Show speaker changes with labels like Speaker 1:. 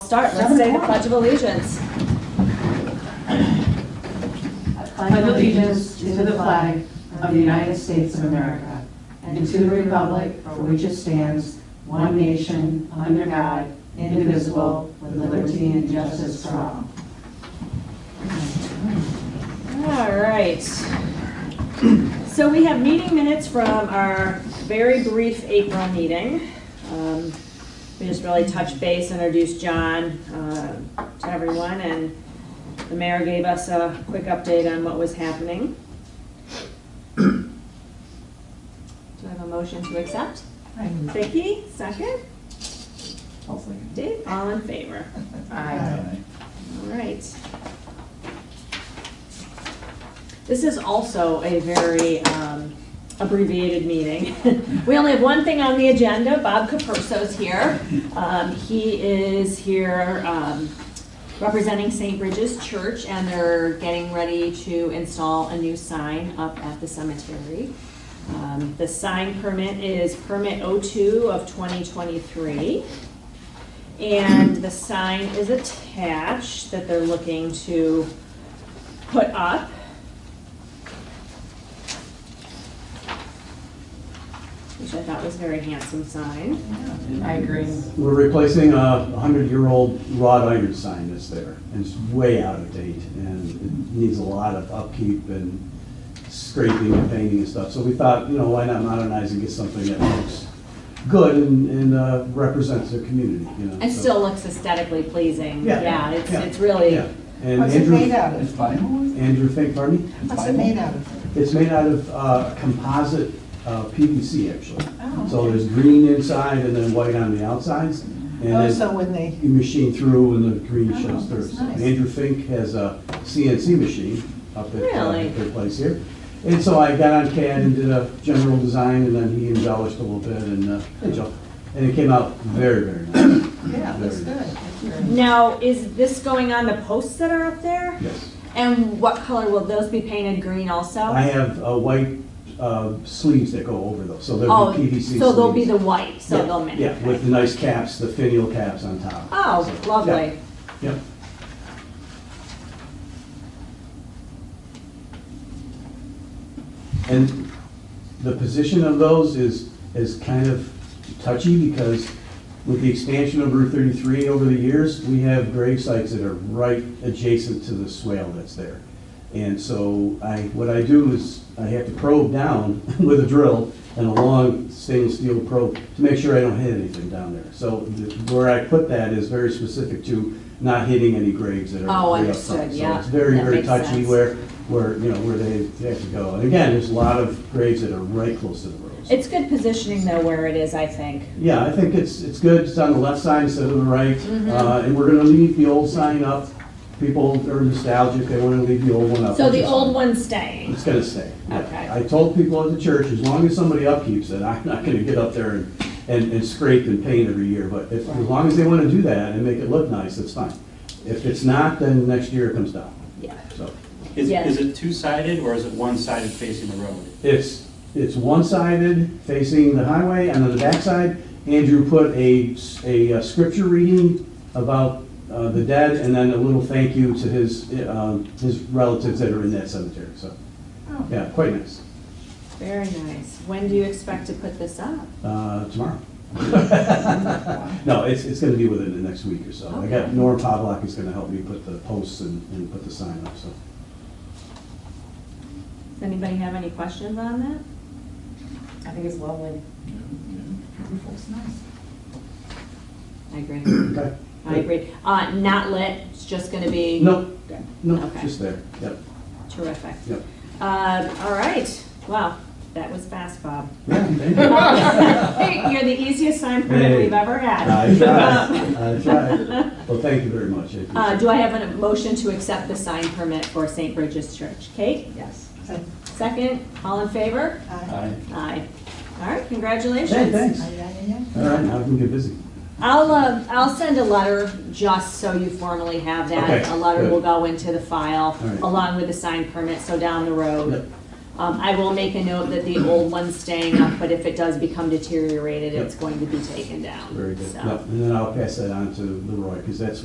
Speaker 1: start, let's
Speaker 2: Seven
Speaker 1: say the
Speaker 2: o'clock.
Speaker 1: Pledge of Allegiance.
Speaker 2: pledge allegiance to the flag of the United States of America and to the republic for which it stands, one nation, under God, indivisible, with liberty and justice for all.
Speaker 1: All right. So we have meeting minutes from our very brief April meeting. Um, We just really touched base, introduced John uh, to everyone, and the mayor gave us a quick update on what was happening. Do I have a motion to accept? Vicky, second?
Speaker 3: I'll second.
Speaker 1: Dave, all in favor?
Speaker 3: Aye.
Speaker 1: All right. This is also a very um, abbreviated meeting. We only have one thing on the agenda. Bob Caperso's here. Um, He is here um, representing St. Bridges Church, and they're getting ready to install a new sign up at the cemetery. Um, The sign permit is permit 02 of 2023. And the sign is attached that they're looking to put up. Which I thought was a very handsome sign.
Speaker 4: Mm-hmm.
Speaker 2: I agree.
Speaker 4: We're replacing a 100-year-old wrought iron sign that's there, and it's way out of date, and it needs a lot of upkeep and scraping and painting and stuff. So we thought, you know, why not modernize and get something that looks good and- and uh, represents the community, you know?
Speaker 1: And
Speaker 4: so-
Speaker 1: still looks aesthetically pleasing.
Speaker 4: Yeah,
Speaker 1: Yeah, it's,
Speaker 4: yeah,
Speaker 1: it's really,
Speaker 4: Yeah. And
Speaker 5: What's it
Speaker 4: Andrew-
Speaker 5: made out
Speaker 3: It's
Speaker 5: of?
Speaker 3: vinyl?
Speaker 4: Andrew Fink, pardon me?
Speaker 5: What's it made out of?
Speaker 4: It's made out of uh, composite uh, PVC, actually.
Speaker 5: Oh,
Speaker 4: So there's green inside and then white on the outsides. and
Speaker 5: Oh,
Speaker 4: then-
Speaker 5: so when they,
Speaker 4: You machine through and the green
Speaker 2: Oh,
Speaker 4: shows through.
Speaker 2: that's
Speaker 4: So
Speaker 2: nice.
Speaker 4: Andrew Fink has a CNC machine up at uh,
Speaker 1: Really?
Speaker 4: their place here. And so I got on CAD and did a general design, and then he embellished a little bit and, uh, and Joe. And it came out very, very nice.
Speaker 5: yeah, that's good.
Speaker 4: Very-
Speaker 5: That's very-
Speaker 1: now, is this going on the posts that are up there?
Speaker 4: Yes.
Speaker 1: And what color will those be painted green also?
Speaker 4: I have uh, white uh, sleeves that go over those, so
Speaker 1: Oh,
Speaker 4: there'll be PVC
Speaker 1: So they'll be
Speaker 4: sleeves.
Speaker 1: the white, so
Speaker 4: Yeah,
Speaker 1: they'll match.
Speaker 4: Yeah, with the nice caps, the finial caps on top.
Speaker 1: Oh,
Speaker 4: So, yeah,
Speaker 1: lovely.
Speaker 4: Yep. And the position of those is, is kind of touchy because with the expansion of Route 33 over the years, we have grave sites that are right adjacent to the swale that's there. And so I, what I do is I have to probe down with a drill and a long stainless steel probe to make sure I don't hit anything down there. So the- where I put that is very specific to not hitting any graves that are.
Speaker 1: Oh,
Speaker 4: way up
Speaker 1: understood,
Speaker 4: front.
Speaker 1: yeah.
Speaker 4: So it's very,
Speaker 1: That
Speaker 4: very
Speaker 1: makes
Speaker 4: touchy
Speaker 1: sense.
Speaker 4: where, where, you know, where they they have to go. And again, there's a lot of graves that are right close to the roads.
Speaker 1: It's good positioning though where it is, I think.
Speaker 4: Yeah, I think it's, it's good, it's on the left side instead of the right.
Speaker 1: Mm-hmm.
Speaker 4: Uh, And we're gonna leave the old sign up. People are nostalgic, they wanna leave the old one up.
Speaker 1: So
Speaker 4: which
Speaker 1: the
Speaker 4: is-
Speaker 1: old one's staying.
Speaker 4: It's gonna stay. yeah.
Speaker 1: Okay.
Speaker 4: I told people at the church, as long as somebody upkeeps it, I'm not gonna get up there and, and and scrape and paint every year. But if, as long as they wanna do that and make it look nice, that's fine. If it's not, then next year it comes down,
Speaker 1: Yeah.
Speaker 4: so.
Speaker 6: Is,
Speaker 1: Yeah.
Speaker 6: is it two-sided or is it one-sided facing the road?
Speaker 4: It's, it's one-sided facing the highway, and on the backside, Andrew put a, s- a uh, scripture reading about uh, the dead, and then a little thank you to his, uh, um, his relatives that are in that cemetery, so,
Speaker 5: Oh.
Speaker 4: yeah, quite nice.
Speaker 1: Very nice. When do you expect to put this up?
Speaker 4: Uh, tomorrow. No, it's, it's gonna be within the next week or so. I got,
Speaker 1: Okay.
Speaker 4: Norm Pavlock is gonna help me put the posts and, and put the sign up, so.
Speaker 1: Does anybody have any questions on that?
Speaker 2: I think it's lovely.
Speaker 1: I agree.
Speaker 4: Okay.
Speaker 1: I agree. Uh, not lit, it's just gonna be.
Speaker 4: No, no,
Speaker 1: Okay.
Speaker 4: just there, yep,
Speaker 1: Terrific.
Speaker 4: yep.
Speaker 1: Uh, all right. Wow, that was fast, Bob.
Speaker 4: Yeah, thank you.
Speaker 1: You're the easiest sign permit
Speaker 4: Hey.
Speaker 1: we've ever had. Um,
Speaker 4: I tried, I tried. Well, thank you very much.
Speaker 1: Uh, do I have a motion to accept the sign permit for St. Bridget's Church? Kate,
Speaker 2: Yes.
Speaker 5: So,
Speaker 1: second, all in favor?
Speaker 5: I-
Speaker 1: Aye. All right, congratulations.
Speaker 4: Hey, thanks.
Speaker 5: I-
Speaker 4: All
Speaker 5: I- I-
Speaker 4: right, now we can get busy.
Speaker 1: I'll, uh, I'll send a letter just so you formally have that.
Speaker 4: Okay,
Speaker 1: A letter will
Speaker 4: good.
Speaker 1: go into the file
Speaker 4: All right.
Speaker 1: along with the signed permit, so down the
Speaker 4: Yep.
Speaker 1: road. Um, I will make a note that the old one's staying up, but if it does become deteriorated, it's going to be taken down.
Speaker 4: Very good.
Speaker 1: so.
Speaker 4: Yep, And then I'll pass that on to Leroy, because that's